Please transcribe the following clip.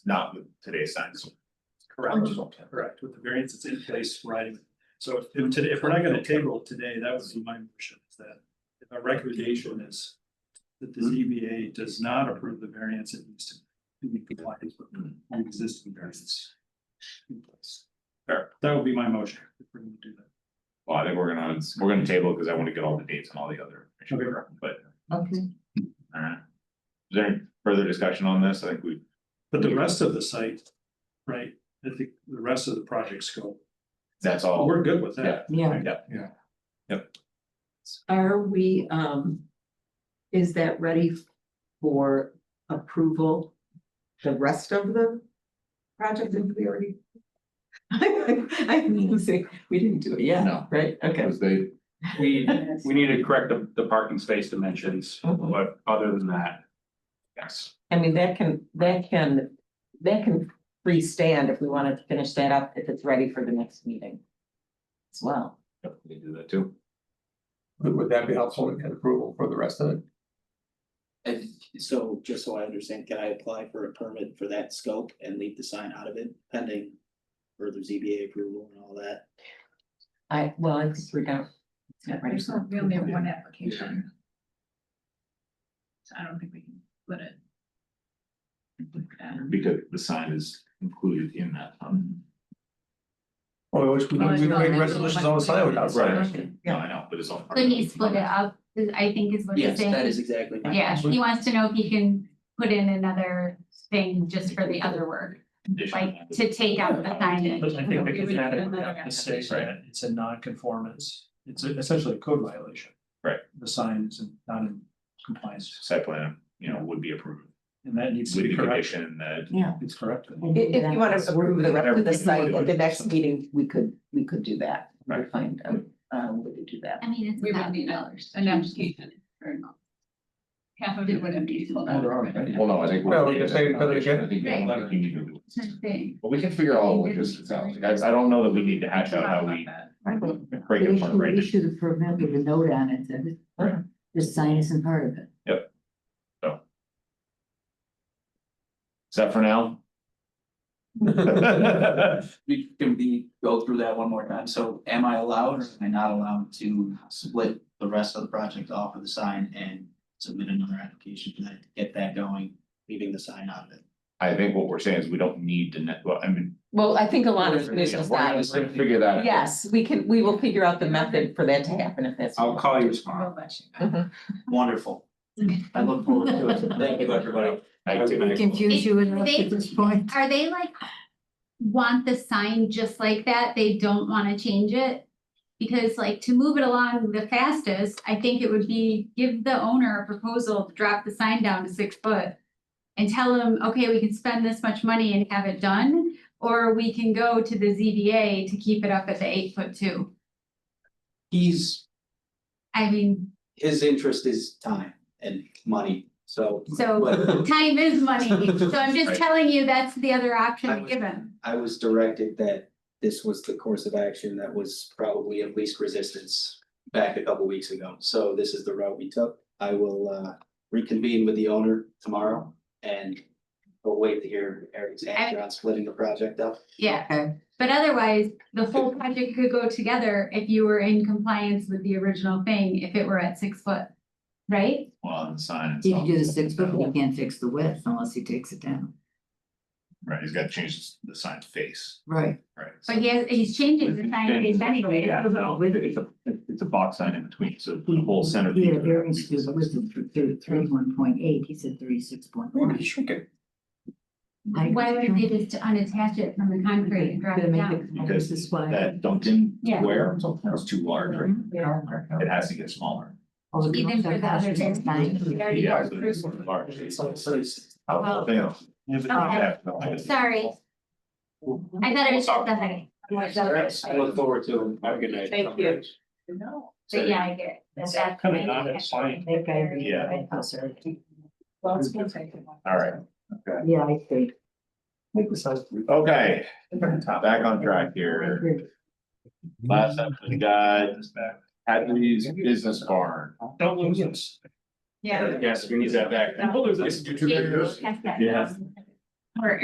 not with today's science. Correct, correct, with the variance that's in place, right? So if- if today, if we're not gonna table it today, that would be my motion, is that if our recommendation is that the ZBA does not approve the variance, it needs to be compliant with the existing variance in place. Fair, that would be my motion, if we're gonna do that. Well, I think we're gonna, we're gonna table because I want to get all the dates and all the other, information, but, Okay. alright. Is there any further discussion on this? I think we, But the rest of the site, right, I think the rest of the project scope, that's oh, all, we're good with that. yeah, Yeah, are we, um, is that ready for approval? The rest of the project that we already? I mean, say, we didn't do it yet, No. right? Okay. Because they, We, we need to correct the, the parking space dimensions, Mm-hmm. Mhm. but other than that, yes. I mean, that can, that can, that can freestand if we wanted to finish that up, if it's ready for the next meeting. As well. Yep, We can do that too. would would that be helpful to get approval for the rest of it? And so, just so I understand, can I apply for a permit for that scope and leave the sign out of it pending further ZBA approval and all that? I, well, I think we're down. it's not ready There's for- not, we only have one application. So I don't think we can split it. Um, Because the sign is included in that. um, Well, I wish we Well, could, we no, could make no, resolutions no, on the side without. Right. No, Yeah. I know, but it's all. part of Could it. he split it up, Is- I think is what he's Yes, that saying. is exactly. my Yeah, question. he wants to know if he can put in another thing just for the other work, Condition. like to take out the But I signage. think we could add it, Another we have to say application. that it's a non-conformance, it's a- essentially a code violation. Right. The sign is not in compliance, Site plan, you know, would be approved and that needs to with the be corrected, condition that Yeah. it's corrected. If, if you want to approve the rest of the site at the next meeting, we could, we could do that. We'll Right. find, out, um, we could do that. I mean, it's We a would need thousand a- dollars. an application for. Half of it would have been pulled out. Well, Well, no, I think. we're- No, we can say it better again. I think we're- Like, you need to- Hmm. It's a thing. But we can figure all the logistics out, like, I, I don't know that we need to hash out how we break it apart, right? Issue the permit with a note on it that Right. it- this sign isn't part of it. Is that for now? We can be, go through that one more time, so am I allowed or am I not allowed to split the rest of the project off of the sign and submit another application for that, to get that going, leaving the sign out of it? I think what we're saying is we don't need to, ne- well, I mean, Well, I think a lot of We're commissions gonna now. just figure that out. Yes, we can, we will figure out the method for that to happen if that's. I'll call you tomorrow. We'll let you know. Wonderful. I look forward to it, thank you, everybody. I We confuse you enough They- at this point. Are they like, want the sign just like that? They don't wanna change it? Because like to move it along the fastest, I think it would be give the owner a proposal to drop the sign down to six foot. And tell them, okay, we can spend this much money and have it done, or we can go to the ZBA to keep it up at the eight foot two. He's, I mean, his interest is time and money, so. so but- time is money, so I'm Right. just telling you, that's the other I option was- given. I was directed that this was the course of action that was probably of least resistance back a couple weeks ago. So this is the route we took. I will uh reconvene with the owner tomorrow and we'll wait to hear Eric's answer on splitting the project up. Yeah. But otherwise, the whole project could go together if you were in compliance with the original thing, if it were at six foot, right? well, on the sign He can itself. do the six foot, but he can't fix the width unless he takes it down. Right, he's got to change the sign face, Right. right? so- But he has, he's changing the sign base anyway. Yeah, no, it's a, it's a box sign in between, so the whole center. He had a variance to the width of thirty-one point eight, he said thirty-six point Why don't one. you shrink it? Why would they just unattach it from the concrete and drop it down? Because This is why. That Duncan Yeah. square is too large, right? It has to get smaller. Mm-hmm. Even for the other things, we already Yeah, got so it's approved. large. It's like, so it's- Well- Yeah. Okay. Sorry, I thought it was just the heading. I look forward to it. Have a good night. Thank you. But yeah, I get it. That's- that's- Coming on, it's fine. Yeah. Oh, Well, it's gonna take a while. All right, Yeah, I think. okay, back on track here. Last up, we got Hadley's Business Barn. Don't lose this. Yeah. Yes, we need that back. Don't lose this. Yeah. Yeah. Or